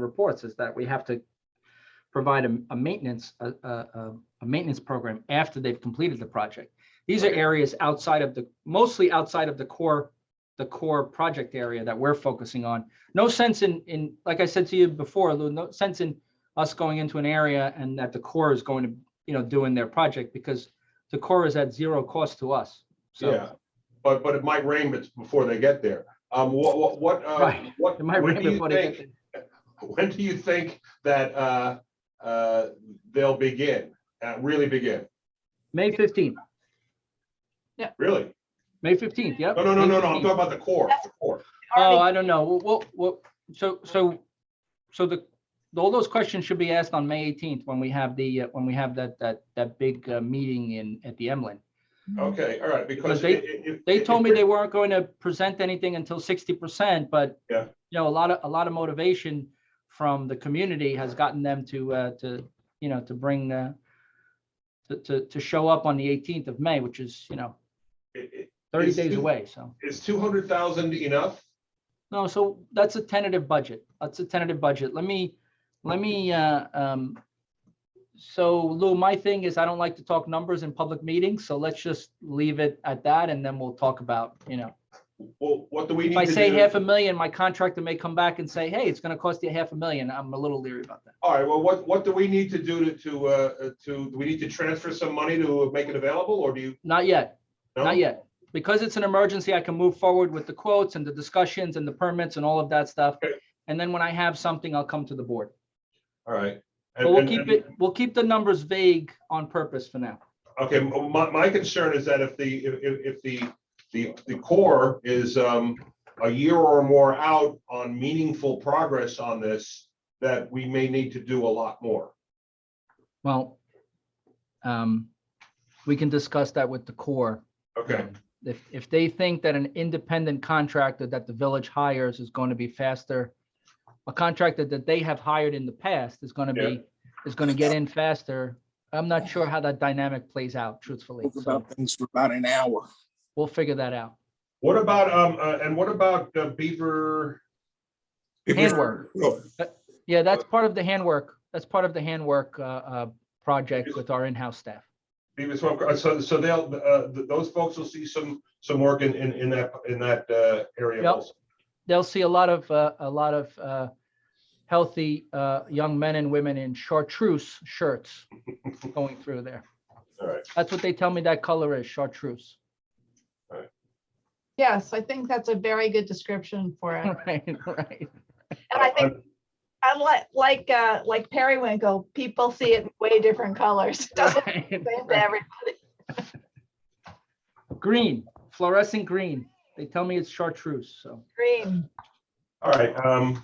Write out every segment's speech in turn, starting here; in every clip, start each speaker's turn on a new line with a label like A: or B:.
A: reports is that we have to provide a, a maintenance, a, a, a- a maintenance program after they've completed the project. These are
B: Okay.
A: areas outside of the, mostly outside of the core, the core project area that we're focusing on. No sense in, in, like I said to you before, Lou, no sense in us going into an area and that the core is going to, you know, doing their project because the core is at zero cost to us. So
B: Yeah, but, but it might rain bet- before they get there. Um, what, what, what, uh,
A: Right.
B: what,
A: it might
B: when
A: rain
B: do you
A: before they get
B: think,
A: there.
B: when do you think that, uh, uh, they'll begin, uh, really begin?
A: May fifteenth,
B: Really?
A: May fifteenth, yep.
B: No, no, no,
A: May
B: no, no, I'm
A: 15th.
B: talking about the core, the core.
A: Oh, I don't know. Well, Well, well, so, so, so the, all those questions should be asked on May eighteenth when we have the, uh, when we have that, that, that big uh, meeting in, at the Emlyn.
B: Okay, all right,
A: Because
B: because.
A: they-
B: it- it- it-
A: They
B: it-
A: told me they weren't going to present anything until sixty percent, but
B: Yeah.
A: you know, a lot of, a lot of motivation from the community has gotten them to, uh, to, you know, to bring, uh, to, to, to show up on the eighteenth of May, which is, you know,
B: it- it-
A: thirty
B: Is-
A: days away, so.
B: Is two hundred thousand enough?
A: No, so that's a tentative budget. That's a tentative budget. Let me, let me, uh, um, so Lou, my thing is I don't like to talk numbers in public meetings, so let's just leave it at that and then we'll talk about, you know.
B: Well, what do we
A: If
B: need to
A: I
B: do?
A: say half a million, my contractor may come back and say, hey, it's gonna cost you half a million. I'm a little leery about that.
B: All right, well, what, what do we need to do to, to, uh, to, do we need to transfer some money to make it available, or do you?
A: Not yet.
B: no?
A: Not yet. Because it's an emergency, I can move forward with the quotes and the discussions and the permits and all of that stuff.
B: Okay.
A: And then when I have something, I'll come to the board.
B: All right.
A: But we'll
B: And- and-
A: keep it, we'll keep the numbers vague on purpose for now.
B: Okay, m- my, my concern is that if the, if, if- if the, the, the core is, um, a year or more out on meaningful progress on this, that we may need to do a lot more.
A: Well, um, we can discuss that with the core.
B: Okay,
A: Um, If, if they think that an independent contractor that the village hires is going to be faster, a contractor that they have hired in the past is going to
B: Yeah.
A: be, is going to get in faster. I'm not sure how that dynamic plays out truthfully.
C: spoke
A: So
C: about things for about an hour.
A: we'll figure that out.
B: what about, um, uh, and what about uh, Beaver?
A: Handwork. Uh,
C: No,
A: Yeah, that's part of the handwork. That's part of the handwork, uh, uh, project with our in-house staff.
B: Beaver Swamp, uh, so, so they'll, uh, th- those folks will see some, some work in, in, in that, in that, uh, area
A: Yep.
B: also.
A: they'll see a lot of, uh, a lot of, uh, healthy, uh, young men and women in chartreuse shirts going through there.
B: All right.
A: That's what they tell me that color is, chartreuse.
D: Yes, I think that's a very good description for it.
A: Hmm.
D: And
A: Right, right.
D: I
B: Uh,
D: think, unlike, like, uh, like periwinkle, people see it in way different colors. Doesn't
A: right,
D: the same to
A: right.
D: every-
A: Green, fluorescent green. They tell me it's chartreuse, so.
D: green.
B: All right, um,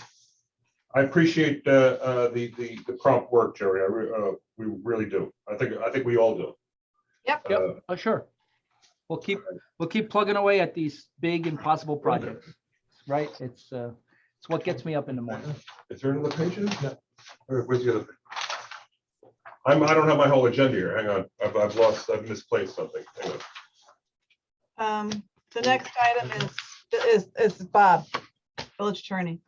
B: I appreciate, uh, uh, the, the, the prompt work, Jerry, I, re- uh, we really do. I think, I think we all do.
D: Yep.
A: Yep.
B: Uh,
A: Oh, sure. We'll keep, we'll keep plugging away at these big impossible projects, right? It's, uh, it's what gets me up in the morning.
B: Is there another page? in it? No. Or where's the other? page? I'm, I don't have my whole agenda here. Hang on. I've, I've lost, I've misplaced something. Hang on.
D: Um, the next item is, is, is Bob, village attorney.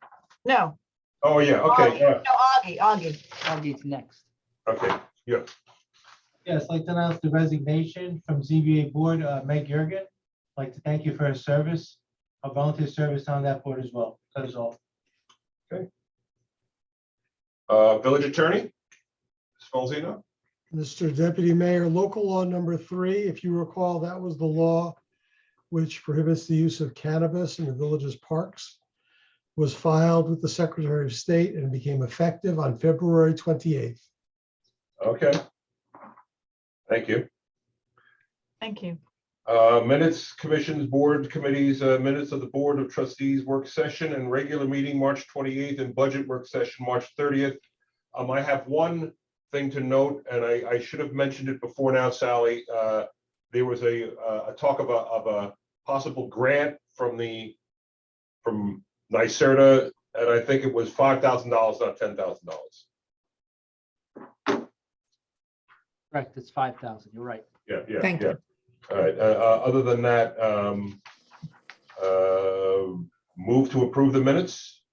D: No.
B: Oh, yeah, okay,
D: Augie.
B: yeah,
D: No, Augie, Augie.
A: Augie's next.
B: okay.
E: Yes, I'd like to announce the resignation from ZBA Board, uh, Meg Yergin. I'd Like to thank you for her service, her volunteer service on that board as well. That is all.
B: Uh, village attorney? Spalzino?
F: Mr. Deputy Mayor, local law number three, if you recall, that was the law which prohibits the use of cannabis in the village's parks, was filed with the Secretary of State and became effective on February 28th.
B: Okay. Thank you.
D: Thank you.
B: Uh, minutes, commissions, board committees, uh, minutes of the Board of Trustees work session and regular meeting, March twenty-eighth, and budget work session, March thirtieth. Um, I have one thing to note, and I, I should have mentioned it before now, Sally. Uh, there was a, uh, a talk of a, of a possible grant from the, from NYSERDA, and I think it was five thousand dollars, not ten thousand dollars.
A: Correct, it's five thousand. You're right.
B: Yeah, yeah.
D: Thank
B: yeah. All right, uh, uh, other than that, um, uh, move to approve the minutes?